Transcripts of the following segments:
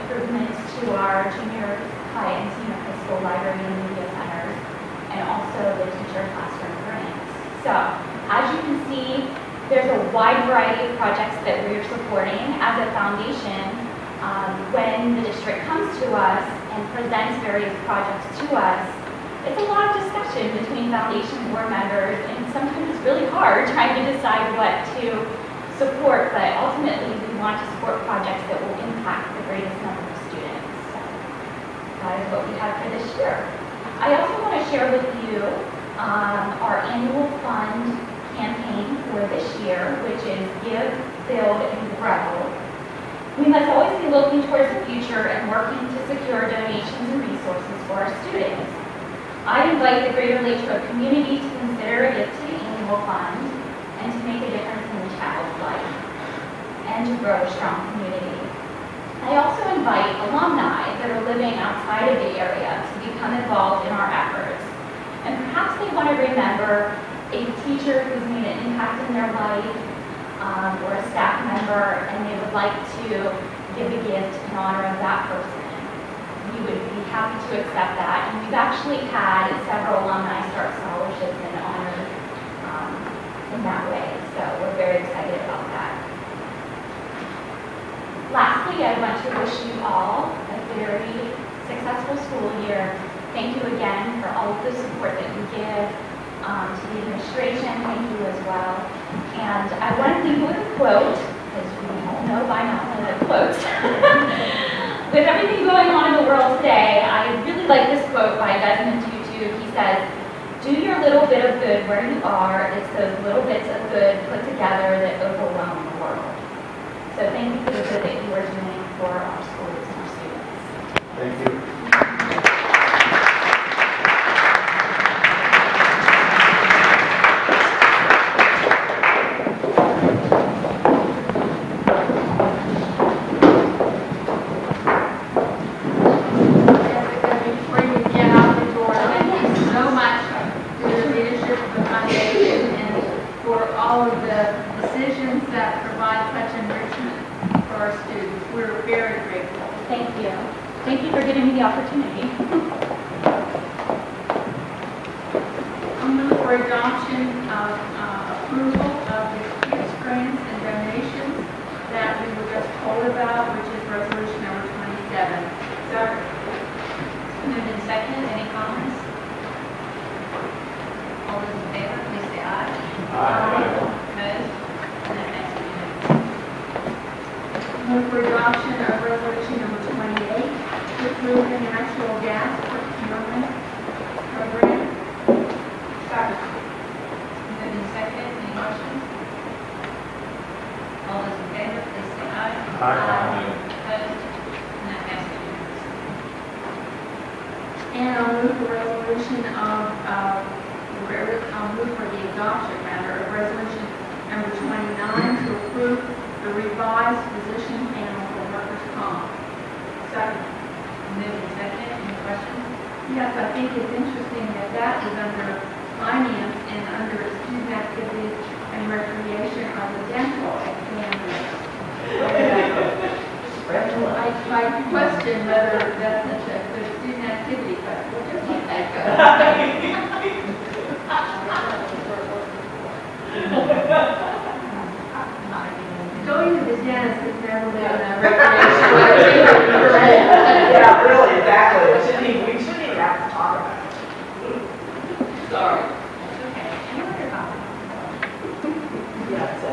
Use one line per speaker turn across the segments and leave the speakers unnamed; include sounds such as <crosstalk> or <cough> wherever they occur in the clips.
improvements to our junior high and senior high school library and media centers, and also the teacher classroom grants. So, as you can see, there's a wide variety of projects that we are supporting as a foundation. Um, When the district comes to us and presents various projects to us, it's a lot of discussion between foundation board members, and sometimes it's really hard <laughs> trying to decide what to support, but ultimately, we want to support projects that will impact the greatest number of students. So That is what we have for this year. I also want to share with you um, our annual fund campaign for this year, which is Give, Build, and Grow. We must always be looking towards the future and working to secure donations and resources for our students. I invite the Greater Latrobe community to consider a gift to the annual fund and to make a difference in the child's life and to grow a strong community. I also invite alumni that are living outside of the area to become involved in our efforts. And perhaps they want to remember a teacher who's made an impact in their life um, or a staff member and they would like to give a gift in honor of that person. We would be happy to accept that. And we've actually had several alumni start scholarships in honor um, in that way. So we're very excited about that. Lastly, I want to wish you all a very successful school year. Thank you again for all of the support that you give um, to the administration. Thank you as well. And I want to leave you with a quote, as you all know by now, I love quotes. <laughs> With everything going on in the world today, I really like this quote by Desmond Tutu. He says, do your little bit of good where you are. It's those little bits of good put together that overwhelm the world. So thank you for the good that you are doing for our schools and our students.
Thank you.
Before you get out the door, thank you so much for your leadership of the foundation and for all of the decisions that provide such enrichment for our students. We're very grateful.
Thank you. Thank you for giving me the opportunity.
I move for adoption of uh, approval of the gifts, grants, and donations that we were just told about, which is resolution number 27. Sorry.
Moved in second, any comments? All those in favor, please say aye. Opposed? And that passes unanimously.
Move for adoption of resolution number 28, to approve the natural gas procurement program.
Moved in second, any questions? All those in favor, please say aye. Opposed? And that passes unanimously.
And I'll move the resolution of, uh, re- I'll move for the adoption matter of resolution number 29 to approve the revised physician panel for workers' comp. Second.
Moved in second, any questions?
Yes, I think it's interesting that that is under finance and under student activities and recreation are the dental examiners. I, I question whether that's such a good student activity, but we'll just let that go.
<laughs>
Going to the dentist has never been a recreational activity.
Yeah, really, exactly. We shouldn't even, we shouldn't even have to talk about it.
That's okay. Any other comments?
Yeah, so.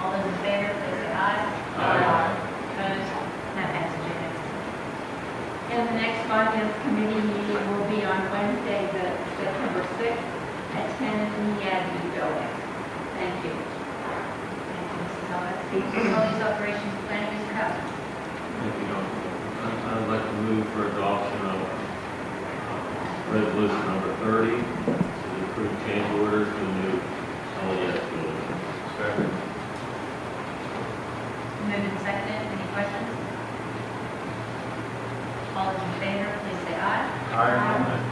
All those in favor, please say aye. Aye. Opposed? And that passes unanimously.
And the next finance committee meeting will be on Wednesday, the September 6th, at 10 in the admin building. Thank you.
Thank you, Mrs. Ellis. Facilities Operations Planning, Mr. Hubble.
Thank you, Dr. President. I'd like to move for adoption of uh, resolution number 30 to approve change orders to the new LES building. Second.
Moved and seconded, any questions? All those in favor, please say aye.
Aye. uh,